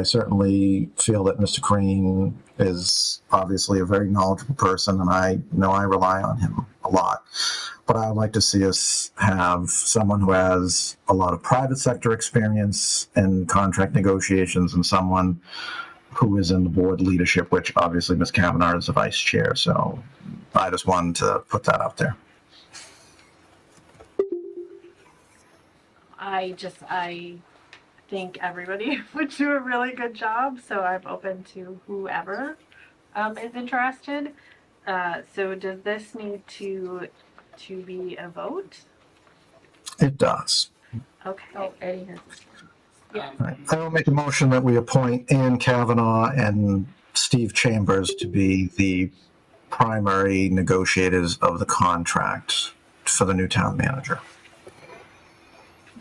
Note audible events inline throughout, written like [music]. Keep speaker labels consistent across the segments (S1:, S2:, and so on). S1: I certainly feel that Mr. Crane is obviously a very knowledgeable person, and I know I rely on him a lot. But I would like to see us have someone who has a lot of private sector experience in contract negotiations and someone who is in the board leadership, which obviously Ms. Kavanaugh is the vice chair. So I just wanted to put that out there.
S2: I just I think everybody [laughs] would do a really good job, so I'm open to whoever um, is interested. Uh, so does this need to to be a vote?
S1: It does.
S2: Okay.
S3: Oh, Eddie has.
S2: Yeah.
S1: All right. I will make a motion that we appoint Ann Kavanaugh and Steve Chambers to be the primary negotiators of the contract for the new town manager.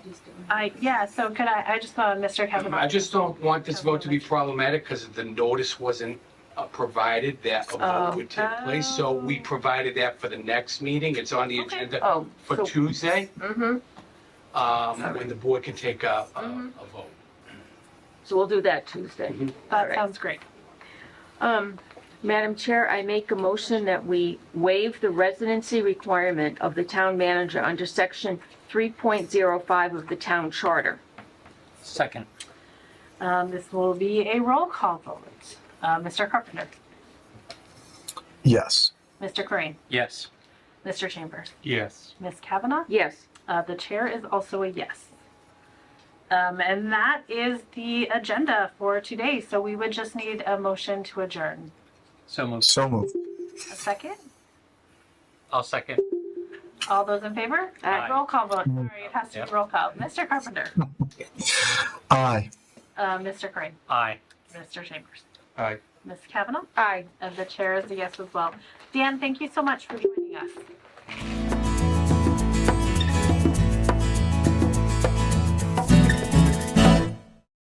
S3: just doing-
S2: I yeah. So could I? I just saw Mr. Kevin.
S4: Um, I just don't want this vote to be problematic because the notice wasn't uh, provided that a vote would take place.
S3: Oh.
S4: So we provided that for the next meeting. It's on the
S2: Okay.
S4: agenda
S3: Oh,
S4: for
S3: so-
S4: Tuesday,
S3: mhm.
S4: um, when the board can take a, a-
S3: Mhm.
S4: a vote.
S3: So we'll do that Tuesday.
S4: Mhm.
S2: That
S3: Alright.
S2: sounds great.
S3: Um, Madam Chair, I make a motion that we waive the residency requirement of the town manager under section 3.05 of the town charter.
S5: Second.
S2: Um, this will be a roll call vote. Uh, Mr. Carpenter,
S1: Yes.
S2: Mr. Crane,
S5: Yes.
S2: Mr. Chambers,
S5: Yes.
S2: Ms. Kavanaugh.
S3: Yes.
S2: Uh, the chair is also a yes. Um, and that is the agenda for today. So we would just need a motion to adjourn.
S5: So moved.
S1: So moved.
S2: A second?
S5: I'll second.
S2: All those in favor?
S3: Aye.
S2: Roll call vote. Sorry, it has to be
S5: Yep.
S2: roll call. Mr. Carpenter,
S1: Aye.
S2: uh, Mr. Crane,
S5: Aye.
S2: Mr. Chambers,
S4: All right.
S2: Ms. Kavanaugh,
S3: Aye.
S2: and the chair is a yes as well. Dan, thank you so much for joining us.